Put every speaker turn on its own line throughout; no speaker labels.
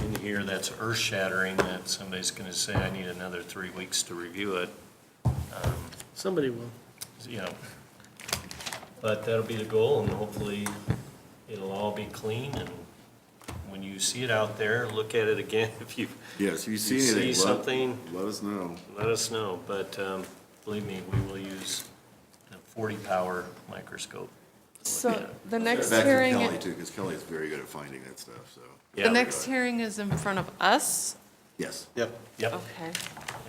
in here that's earth-shattering, that somebody's going to say, I need another three weeks to review it, Um,
Somebody will.
you know. But that'll be the goal, and hopefully it'll all be clean, and when you see it out there, look at it again if you,
Yes, if you see
You see
anything, let,
something?
let us know.
let us know. But um, believe me, we will use the 40-power microscope.
So the next
Back to
hearing,
Kelly too, because Kelly is very good at finding that stuff, so.
Yeah.
the next hearing is in front of us?
Yes.
Yep.
Yep.
Okay.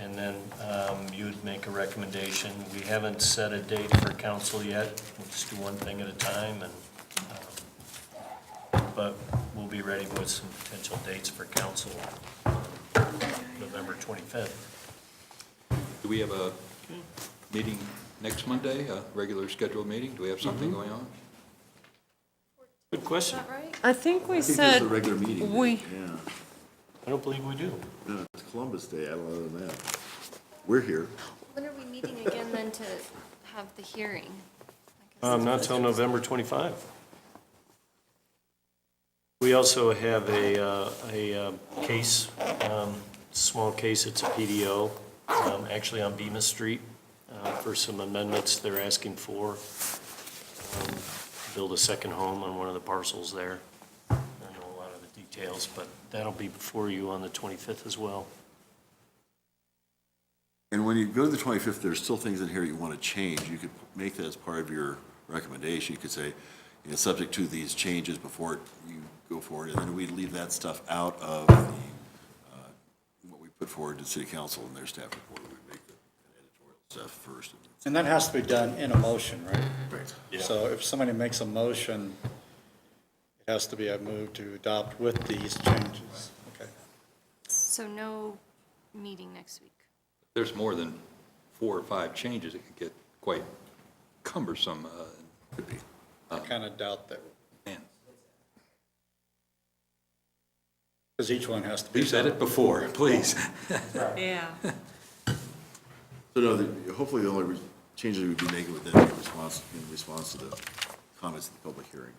And then um, you'd make a recommendation. We haven't set a date for council yet. We'll just do one thing at a time and, um, but we'll be ready with some potential dates for council um, November 25th.
Do we have a meeting next Monday, a regular scheduled meeting? Do we have something going on?
Good question.
I think we
I think there's
said,
a regular meeting.
we-
Yeah,
I don't believe we do.
no, it's Columbus Day, I don't know that. We're here.
When are we meeting again then to have the hearing?
Um, Not till November 25. We also have a, uh, a um, case, um, small case, it's a PDO, um, actually on Bemis Street, uh, for some amendments they're asking for. um, Build a second home on one of the parcels there. I don't know a lot of the details, but that'll be before you on the 25th as well.
And when you go to the 25th, there's still things in here you want to change. You could make that as part of your recommendation. You could say, you know, subject to these changes before you go forward, and then we leave that stuff out of the, uh, what we put forward to city council and their staff report. We make the editorial stuff first.
And that has to be done in a motion, right?
Right.
So if somebody makes a motion, it has to be a move to adopt with these changes. Okay.
So no meeting next week.
There's more than four or five changes. It could get quite cumbersome. uh,
Could be.
I kind of doubt that,
Man,
because each one has to be.
we've said it before, please.
yeah.
So no, the- hopefully the only re- changes we'd be making with that in response, in response to the comments at the public hearing.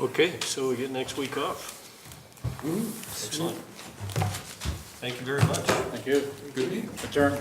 Okay, so we get next week off. Mm-hmm. Excellent. Thank you very much.
Thank you.
Good meeting.
Adjourn.